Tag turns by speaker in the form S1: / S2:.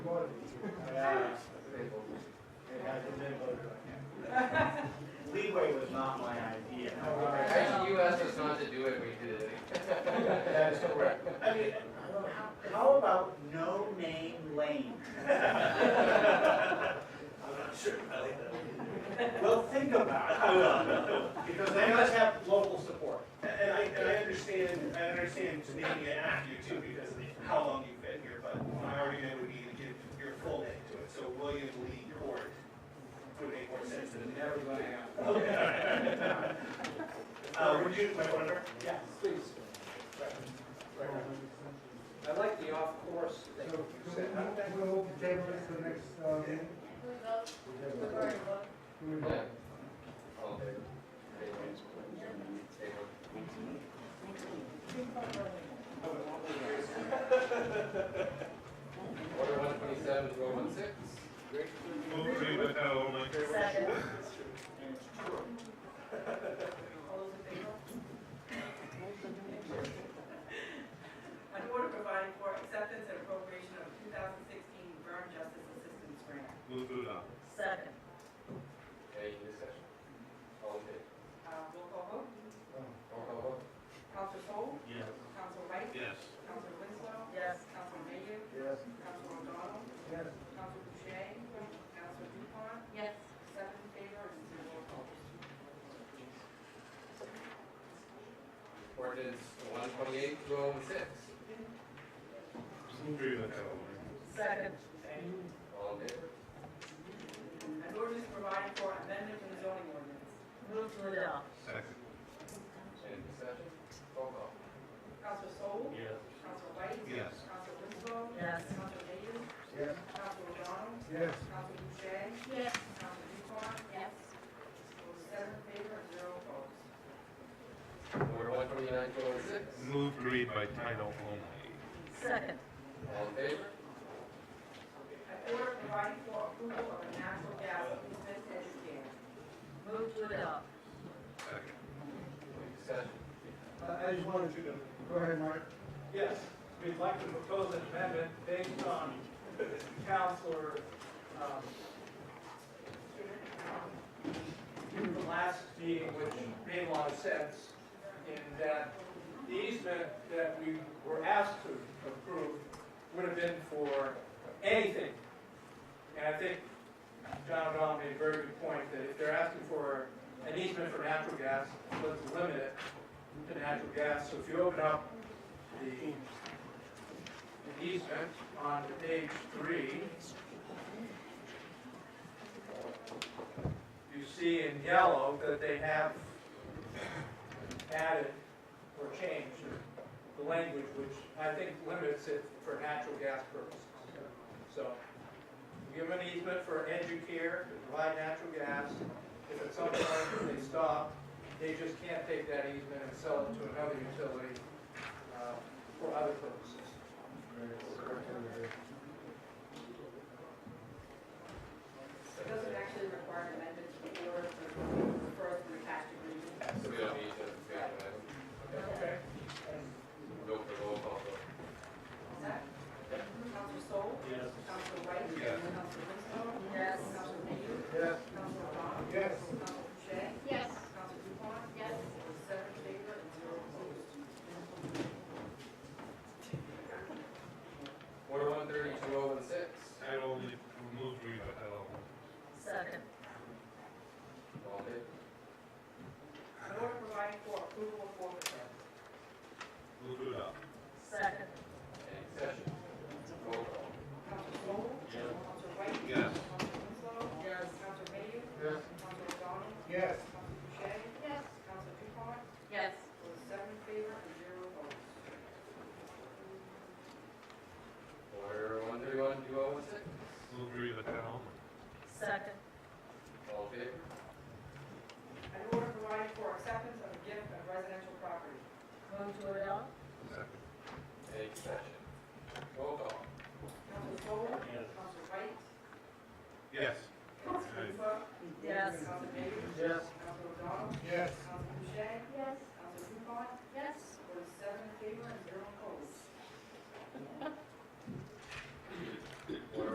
S1: mean? I'm not sure, Elliot. Well, think about it. I will. Because
S2: They
S1: they
S2: must
S1: must
S2: have local support.
S1: and I, and I understand, I understand making it after you too, because of how long you've been here, but my argument would be to give your full name to it, so William Lee Court would make more sense than.
S2: Everybody out.
S1: Okay. Uh, would you, my wonder?
S2: Yeah, please. I like the off-course thing
S3: So,
S2: you
S3: so
S2: said.
S3: we'll, we'll table it to the next, uh, meeting? We will.
S4: Order one twenty-seven, row one six.
S1: Move to, no, my.
S5: Second. An order providing for acceptance and appropriation of 2016 Burn Justice Assistance Grant.
S1: Move to adopt.
S5: Second.
S4: Any discussion? All in favor?
S5: Uh, Roll call vote.
S4: Roll call vote.
S5: Counselor Sol,
S1: Yes.
S5: Counselor White,
S1: Yes.
S5: Counselor Winslow. Yes. Counselor Mayhew,
S3: Yes.
S5: Counselor O'Donnell,
S3: Yes.
S5: Counselor Boucher, Counselor Dupont. Yes. Seven in favor and zero opposed.
S4: Ordinance one twenty-eight, row one six.
S1: Move to,
S5: Second.
S4: All in favor?
S5: An ordinance providing for amendment to the zoning ordinance.
S6: Move to adopt.
S1: Second.
S4: Any discussion? Roll call.
S5: Counselor Sol,
S1: Yes.
S5: Counselor White.
S1: Yes.
S5: Counselor Winslow.
S6: Yes.
S5: Counselor Mayhew,
S3: Yes.
S5: Counselor O'Donnell,
S3: Yes.
S5: Counselor Boucher,
S6: Yes.
S5: Counselor Dupont. Yes. Seven in favor and zero opposed.
S4: Order one twenty-nine, row one six.
S1: Move to read by title only.
S6: Second.
S4: All in favor?
S5: An order providing for approval of a natural gas easement and dam.
S6: Move to adopt.
S1: Second.
S4: Any discussion?
S3: I, I just wanted to, go ahead, Mark.
S2: Yes, we'd like to propose an amendment based on Counselor, um, from the last meeting, which made a lot of sense, in that the easement that we were asked to approve would have been for anything. And I think John O'Donnell made a very good point, that if they're asking for an easement for natural gas, let's limit it to natural gas. So if you open up the the easement on page three, you see in yellow that they have added or changed the language, which I think limits it for natural gas purposes. So, give them an easement for educare to provide natural gas. If at some point they stop, they just can't take that easement and sell it to another utility uh, for other purposes.
S5: It doesn't actually require an amendment to the order for the first and attached agreement.
S4: So we don't need to, we don't have,
S2: Okay.
S4: to go for roll call vote.
S5: Is that? Counselor Sol.
S2: Yes.
S5: Counselor White.
S1: Yes.
S5: Counselor Winslow.
S6: Yes.
S5: Counselor Mayhew.
S3: Yes.
S5: Counselor O'Donnell.
S3: Yes.
S5: Counselor Boucher.
S6: Yes.
S5: Counselor Dupont. Yes. Seven in favor and
S4: Order one
S5: zero opposed.
S4: thirty, row one six.
S1: Title only, move to read by title only.
S6: Second.
S4: All in favor?
S5: An order providing for approval of forfeiture.
S1: Move to adopt.
S6: Second.
S4: Any discussion? Roll call.
S5: Counselor Sol.
S1: Yes.
S5: Counselor White.
S1: Yes.
S5: Counselor Winslow.
S6: Yes.
S5: Counselor Mayhew.
S3: Yes.
S5: Counselor O'Donnell.
S3: Yes.
S5: Counselor Boucher.
S6: Yes.
S5: Counselor Dupont.
S6: Yes.
S5: Seven in favor and zero opposed.
S4: Order one thirty-one, row one six.
S1: Move to read by title only.
S6: Second.
S4: All in favor?
S5: An order providing for acceptance of a gift of residential property.
S6: Move to adopt.
S1: Second.
S4: Any discussion? Roll call.
S5: Counselor Sol. Counselor White.
S1: Yes.